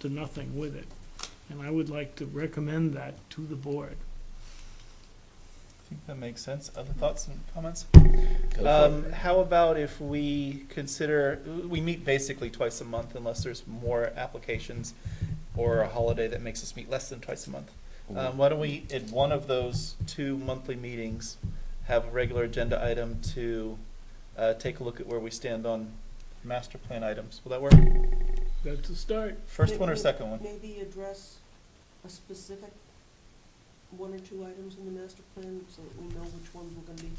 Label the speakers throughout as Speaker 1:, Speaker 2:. Speaker 1: to nothing with it. And I would like to recommend that to the board.
Speaker 2: I think that makes sense. Other thoughts and comments?
Speaker 3: Go for it.
Speaker 2: Um, how about if we consider, we meet basically twice a month unless there's more applications or a holiday that makes us meet less than twice a month. Um, why don't we, at one of those two monthly meetings, have a regular agenda item to, uh, take a look at where we stand on master plan items. Will that work?
Speaker 1: That's a start.
Speaker 2: First one or second one?
Speaker 4: Maybe address a specific one or two items in the master plan so that we know which ones we're gonna be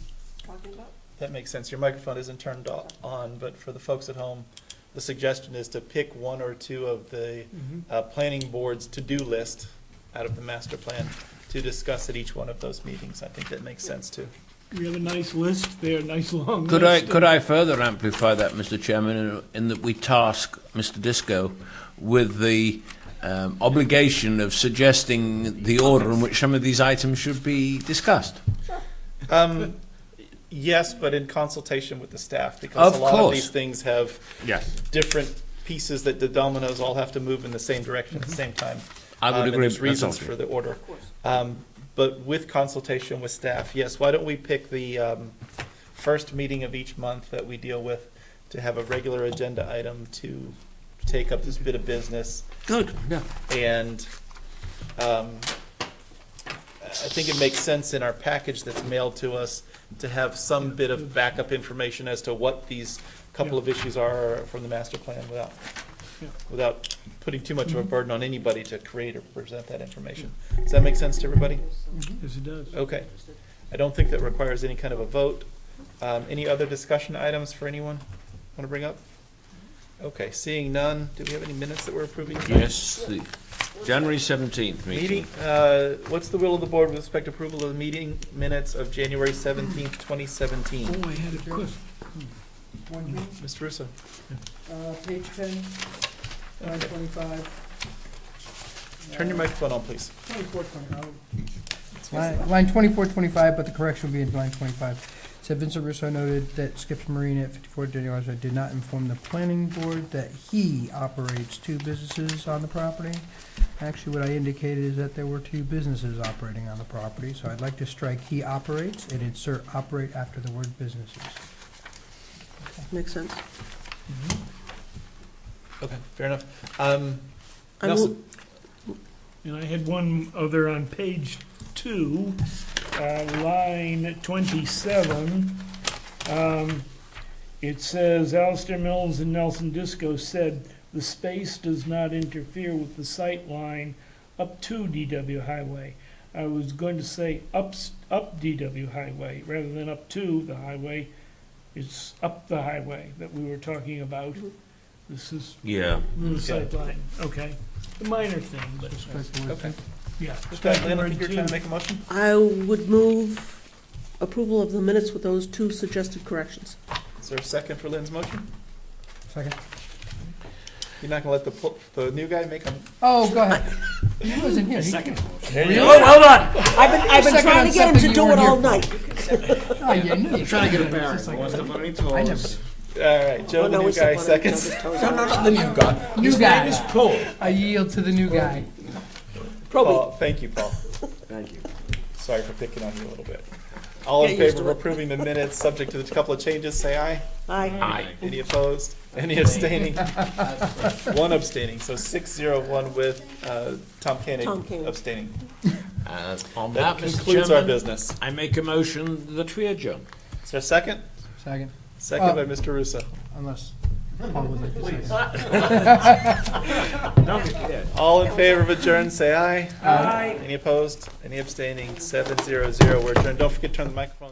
Speaker 4: talking about.
Speaker 2: That makes sense. Your microphone isn't turned o- on, but for the folks at home, the suggestion is to pick one or two of the
Speaker 1: Mm-hmm.
Speaker 2: uh, planning board's to-do list out of the master plan to discuss at each one of those meetings. I think that makes sense too.
Speaker 1: We have a nice list there, nice long list.
Speaker 3: Could I, could I further amplify that, Mr. Chairman, in, in that we task Mr. Disco with the um, obligation of suggesting the order in which some of these items should be discussed?
Speaker 2: Um, yes, but in consultation with the staff because a
Speaker 3: Of
Speaker 2: lot of
Speaker 3: course.
Speaker 2: these things have
Speaker 3: Yes.
Speaker 2: different pieces that the dominoes all have to move in the same direction at the same time.
Speaker 3: I would
Speaker 2: Um, and
Speaker 3: agree.
Speaker 2: there's
Speaker 3: with that's all
Speaker 2: reasons
Speaker 3: true.
Speaker 2: for the order.
Speaker 4: Of course,
Speaker 2: Um, But with consultation with staff, yes, why don't we pick the um, first meeting of each month that we deal with to have a regular agenda item to take up this bit of business?
Speaker 3: Good, yeah.
Speaker 2: And um, I think it makes sense in our package that's mailed to us to have some bit of backup information as to what these couple of issues are from the master plan without,
Speaker 1: Yeah.
Speaker 2: without putting too much of a burden on anybody to create or present that information. Does that make sense to everybody?
Speaker 4: there's some
Speaker 1: Yes, it does.
Speaker 2: Okay.
Speaker 4: interesting.
Speaker 2: I don't think that requires any kind of a vote. Um, any other discussion items for anyone want to bring up? Okay, seeing none, do we have any minutes that we're approving? tonight?
Speaker 3: Yes, the January 17th
Speaker 2: Meeting,
Speaker 3: meeting.
Speaker 2: uh, what's the will of the board with respect to approval of the meeting minutes of January seventeenth, twenty seventeen?
Speaker 1: Oh, I had a question.
Speaker 5: One thing,
Speaker 2: Mr. Russo?
Speaker 5: uh, page ten, line twenty-five. Uh,
Speaker 2: Turn your microphone on, please.
Speaker 5: Twenty-four, twenty-five. Line, line twenty-four, twenty-five, but the correction will be in line twenty-five. So Vincent Russo noted that Skips Marine at fifty-four Denny Plaza did not inform the planning board that he operates two businesses on the property. Actually, what I indicated is that there were two businesses operating on the property, so I'd like to strike he operates and insert operate after the word businesses.
Speaker 4: Makes sense.
Speaker 2: Okay, fair enough. Um,
Speaker 4: I will,
Speaker 2: Nelson?
Speaker 1: And I had one other on page two, uh, line 27. Um, It says, Alistair Mills and Nelson Disco said, "The space does not interfere with the sight line up to DW Highway." I was going to say ups, up DW Highway, rather than up to the highway. It's up the highway that we were talking about. This is
Speaker 3: Yeah.
Speaker 1: the sight line, okay. The minor thing, but,
Speaker 2: Okay.
Speaker 1: yeah.
Speaker 2: Lynn, I think you're trying to make a motion?
Speaker 4: I would move approval of the minutes with those two suggested corrections.
Speaker 2: Is there a second for Lynn's motion?
Speaker 5: Second.
Speaker 2: You're not gonna let the, pl- the new guy make a?
Speaker 5: Oh, go ahead. He wasn't here. He-
Speaker 2: There you
Speaker 3: Oh, hold on.
Speaker 4: I've been, I've been
Speaker 5: Second
Speaker 4: trying
Speaker 5: on
Speaker 4: to get him
Speaker 5: something
Speaker 4: to
Speaker 5: you
Speaker 4: do it
Speaker 5: weren't
Speaker 4: all
Speaker 5: here
Speaker 4: night.
Speaker 5: Oh, yeah, I knew you.
Speaker 6: Trying to get a bearing. Wants the money to
Speaker 5: I never-
Speaker 6: us.
Speaker 2: All right, Joe,
Speaker 4: Oh,
Speaker 2: the
Speaker 4: no,
Speaker 2: new
Speaker 4: we
Speaker 2: guy,
Speaker 4: still want him to
Speaker 2: seconds.
Speaker 4: jump his toes out.
Speaker 6: not the new guy.
Speaker 5: New guy.
Speaker 6: Paul.
Speaker 5: I yield to the new guy.
Speaker 2: Paul, thank you, Paul.
Speaker 6: Thank you.
Speaker 2: Sorry for picking on you a little bit. All in
Speaker 4: Get used
Speaker 2: favor of
Speaker 4: to it.
Speaker 2: approving the minutes, subject to the couple of changes, say aye.
Speaker 4: Aye.
Speaker 2: Any opposed? Any abstaining? One abstaining, so six zero one with uh, Tom
Speaker 4: Tom
Speaker 2: Koenig
Speaker 4: Koenig.
Speaker 2: abstaining.
Speaker 3: And Uh, on that,
Speaker 2: That
Speaker 3: Mr.
Speaker 2: concludes our
Speaker 3: Chairman,
Speaker 2: business.
Speaker 3: I make a motion that we adjourn.
Speaker 2: Is there a second?
Speaker 5: Second,
Speaker 2: Second by
Speaker 5: Uh,
Speaker 2: Mr. Russo.
Speaker 5: unless Paul would like to say something.
Speaker 2: All in favor of adjourn, say aye.
Speaker 1: Aye.
Speaker 2: Any opposed? Any abstaining? Seven zero zero, we're adjourned. Don't forget to turn the microphone